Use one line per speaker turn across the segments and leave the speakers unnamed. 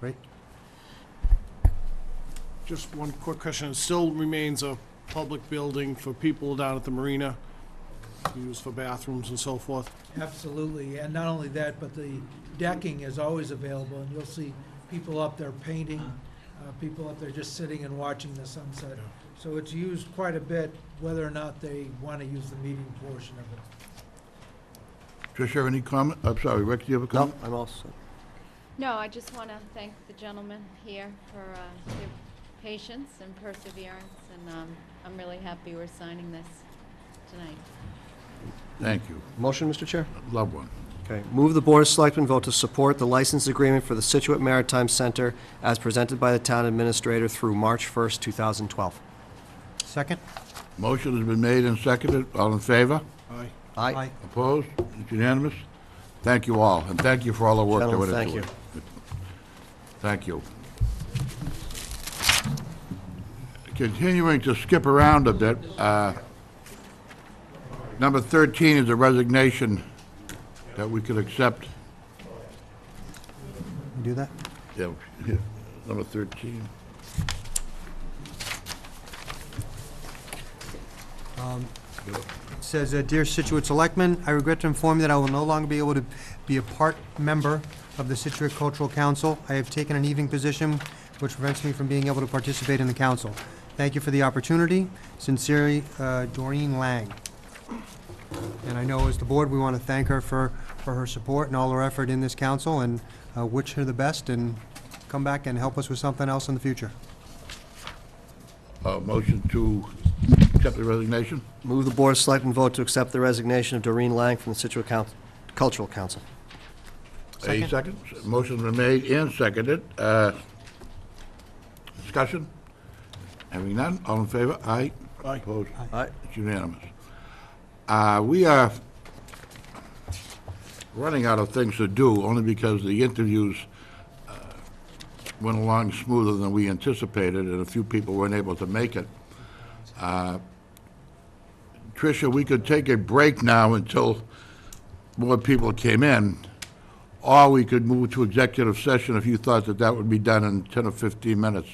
right?
Just one quick question. It still remains a public building for people down at the marina, used for bathrooms and so forth.
Absolutely, and not only that, but the decking is always available, and you'll see people up there painting, uh, people up there just sitting and watching the sunset. So it's used quite a bit, whether or not they want to use the meeting portion of it.
Trish, you have any comment? I'm sorry, Rick, do you have a
No,
comment?
I'm all set.
No, I just want to thank the gentlemen here for uh, their patience and perseverance, and um, I'm really happy we're signing this tonight.
Thank you.
Motion, Mr. Chair?
Love one.
Okay. Move the Board of Selectmen vote to support the license agreement for the Situate Maritime Center as presented by the town administrator through March 1st, 2012.
Second?
Motion has been made and seconded. All in favor?
Aye.
Aye.
Opposed? It's unanimous? Thank you all, and thank you for all the work that went
Gentlemen,
into it. Thank you. Continuing to skip around a bit, uh, number 13 is a resignation that we could accept.
We Do that?
Yeah, yeah, number 13.
It Says, uh, "Dear Situate Selectmen, I regret to inform you that I will no longer be able to be a part member of the Situate Cultural Council. I have taken an evening position, which prevents me from being able to participate in the council. Thank you for the opportunity. Sincerely, uh, Doreen Lang." And I know as the board, we want to thank her for, for her support and all her effort in this council, and uh, wish her the best, and come back and help us with something else in the future.
Uh, Motion to accept the resignation?
Move the Board of Selectmen vote to accept the resignation of Doreen Lang from the Situate Coun- Cultural Council.
A
Second.
second. Motion been made and seconded. Uh, Discussion? Having none, all in favor? Aye.
Aye.
Opposed?
Aye.
It's unanimous. Uh, We are running out of things to do, only because the interviews uh, went along smoother than we anticipated, and a few people weren't able to make it. Uh, Tricia, we could take a break now until more people came in, or we could move to executive session if you thought that that would be done in 10 or 15 minutes.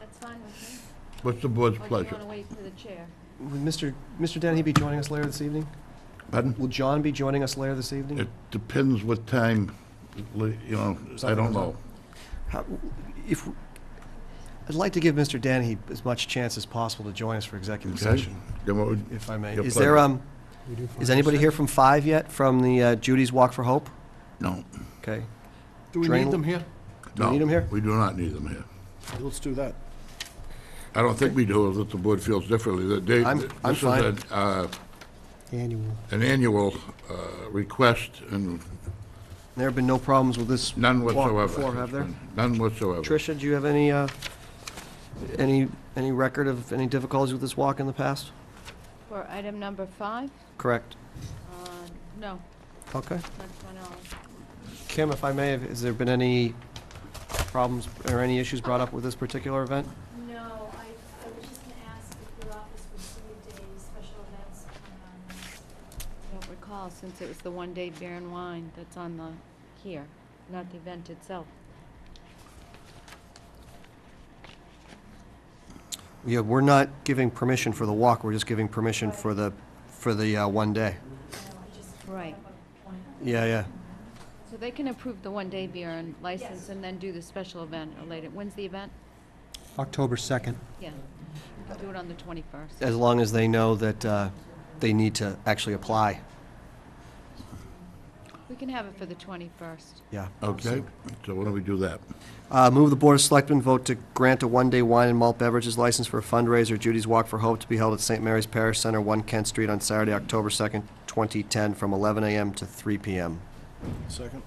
That's fine with me.
What's the board's
Or Oh, do you
pleasure?
want to wait for the chair?
Would Mr. Mr. Dennehy be joining us later this evening?
Pardon?
Will John be joining us later this evening?
It depends what time, you know, I don't know.
How- If, I'd like to give Mr. Dennehy as much chance as possible to join us for executive
Okay?
session,
Then what would-
if I may.
Your
Is there,
pleasure.
um, is anybody here from Five yet, from the uh, Judy's Walk for Hope?
No,
Okay.
Do we
Drain-
need them here?
Do we
no.
need 'em here?
We do not need them here.
Let's do that.
I don't think we do, if the board feels differently. that they-
I'm- I'm
this is
fine.
an, uh,
Annual.
An annual uh, request and
There have been no problems with this
none
walk
whatsoever.
before, have there?
None whatsoever.
Tricia, do you have any, uh, any, any record of any difficulties with this walk in the past?
For item number five?
Correct.
Uh, No,
Okay.
not to my knowledge.
Kim, if I may, have- has there been any problems or any issues brought up with this particular event?
No, Oh, I, I was just gonna ask if your office received a special events um, plan.
I don't recall, since it was the one-day beer and wine that's on the, here, not the event itself.
Yeah, we're not giving permission for the walk, we're just giving permission for the, for the uh, one day.
Right.
Yeah, yeah.
So they can approve the one-day beer and license and then do the special event or later. When's the event?
October 2nd.
Yeah. Do it on the 21st.
As long as they know that uh, they need to actually apply.
We can have it for the 21st.
Yeah.
Okay, so why don't we do that?
Uh, Move the Board of Selectmen vote to grant a one-day wine and malt beverages license for a fundraiser, Judy's Walk for Hope, to be held at St. Mary's Parish Center, 1 Kent Street, on Saturday, October 2nd, 2010, from 11 a.m. to 3 p.m.
Second.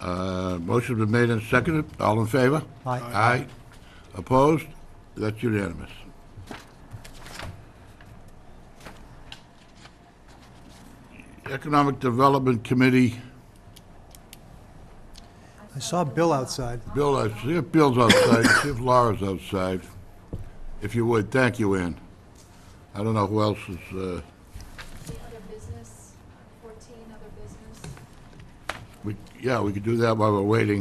Uh, Motion been made and seconded. All in favor?
Aye.
Aye. Opposed? That's unanimous. Economic Development Committee,
I saw Bill outside.
Bill, I see if Bill's outside, see if Laura's outside. If you would, thank you, Ann. I don't know who else is, uh,
The other business, fourteen other business.
we, yeah, we could do that while we're waiting.